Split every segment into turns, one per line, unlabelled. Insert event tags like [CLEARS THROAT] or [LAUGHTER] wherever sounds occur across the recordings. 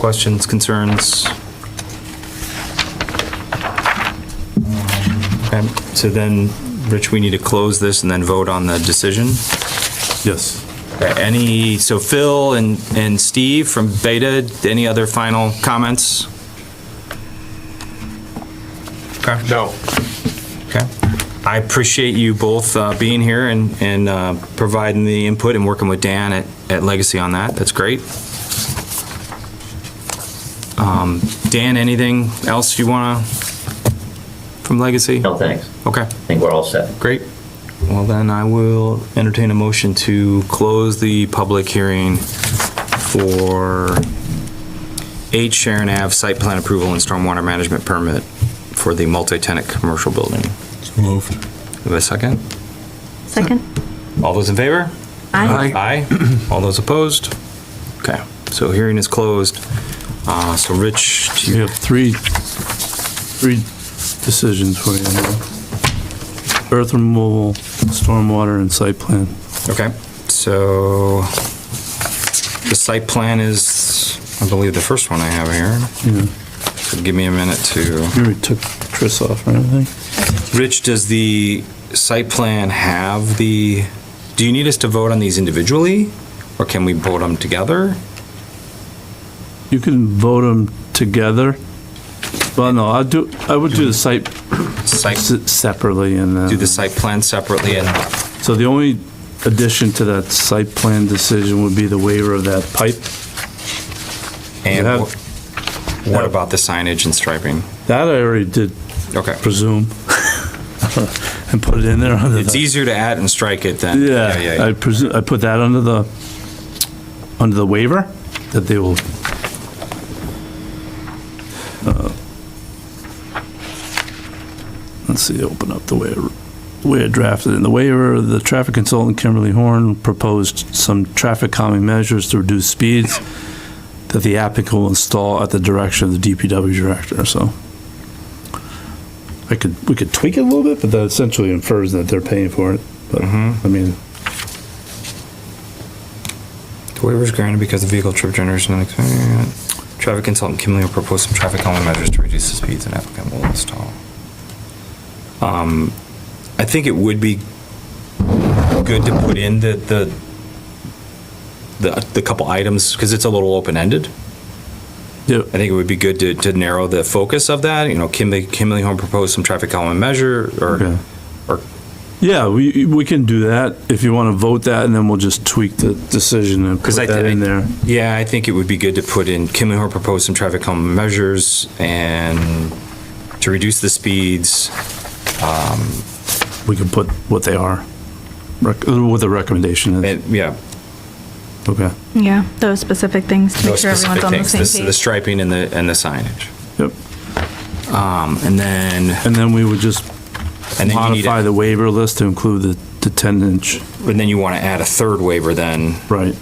Questions, concerns? Um, Okay, so then, Rich, we need to close this and then vote on the decision.
Yes.
Okay, Any, so Phil and, and Steve from Beta, any other final comments? Okay.
No.
Okay. I appreciate you both uh, being here and, and uh, providing the input and working with Dan at, at Legacy on that. That's great. Um, Dan, anything else you want to, from Legacy?
No, thanks.
Okay,
I think we're all set.
great. Well, then I will entertain a motion to close the public hearing for 8 Sharon Ave site plan approval and stormwater management permit for the multi-tenant commercial building.
Moved.
Have a second?
Second?
All those in favor?
Aye.
Aye. All those opposed? Okay, so hearing is closed. Uh, So Rich, do
We
you-
have three, three decisions for you now. Earth removal, stormwater, and site plan.
okay, so the site plan is, I believe, the first one I have here.
Yeah,
So give me a minute to,
you already took Chris off, right, I think?
Rich, does the site plan have the, do you need us to vote on these individually? Or can we vote them together?
You can vote them together. Well, no, I'd do, I would do the site
Site,
se- separately and
do the
then,
site plan separately and,
so the only addition to that site plan decision would be the waiver of that pipe.
and
Yeah.
wh- what about the signage and striping?
That I already did
Okay.
presume. [LAUGHS] And put it in there under
It's
the,
easier to add and strike it than.
yeah, I presume, I put that under the, under the waiver, that they will. uh, Let's see, open up the waiver, way it drafted in the waiver, the traffic consultant Kimberly Horn proposed some traffic calming measures to reduce speeds that the applicant will install at the direction of the DPW director, so. I could, we could tweak it a little bit, but that essentially infers that they're paying for it, but, I mean,
The waiver is granted because the vehicle trip generation and traffic consultant Kim Lee will propose some traffic calming measures to reduce the speeds an applicant will install. Um, I think it would be good to put in the, the, the, the couple items, because it's a little open-ended.
yeah,
I think it would be good to, to narrow the focus of that, you know, Kim, Lee- Kim Lee Home proposed some traffic calming measure,
Okay.
or, or,
Yeah, we, we can do that if you want to vote that, and then we'll just tweak the decision and put
'Cause I-
that in
I-
there.
yeah, I think it would be good to put in, Kim Lee Home proposed some traffic calming measures, and to reduce the speeds,
We can put what they are, rec- uh, what the recommendation is.
And, yeah,
Okay,
Yeah, those specific things to make
those
sure
specific
everyone's on the
things, the
same
the
page.
striping and the, and the signage.
yep.
Um, And then,
And then we would just
and then you need,
modify
a-
the waiver list to include the, the 10-inch,
and then you want to add a third waiver then
right?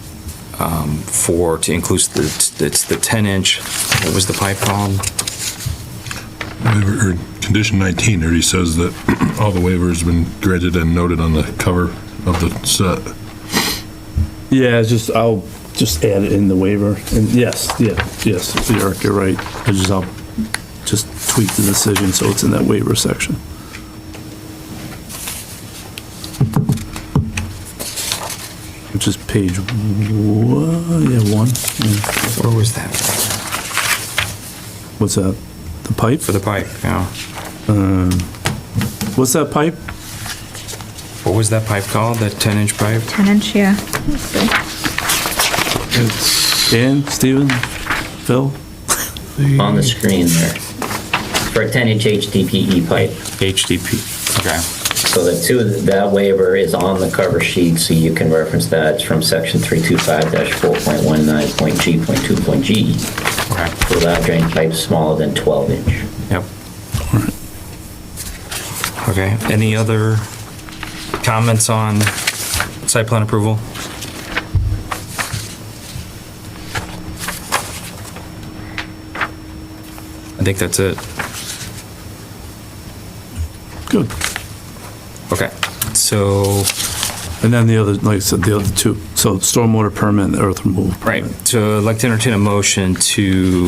for, to include the, it's the 10-inch, what was the pipe called?
Waiver, or condition 19 already says that [CLEARS THROAT] all the waivers have been granted and noted on the cover of the set.
Yeah, it's just, I'll just add it in the waiver, and yes, yeah, yes, Eric, you're right. I just, I'll just tweak the decision so it's in that waiver section. Which is page, one, yeah, one, yeah.
Where was that?
what's that? The pipe?
For the pipe, yeah.
What's that pipe?
What was that pipe called, that 10-inch pipe?
10 inch, yeah. That's good.
Dan, Steven, Phil?
On the screen there. For a 10-inch HDPE E pipe.
HDP. Okay,
So the two, that waiver is on the cover sheet, so you can reference that. It's from section 325-4.19.g.2.g
okay,
to allow drain pipes smaller than 12 inch.
yep. Okay, any other comments on site plan approval? I think that's it.
Good.
Okay, so
And then the other, like I said, the other two, so stormwater permit and earth removal permit.
Right, so I'd like to entertain a motion to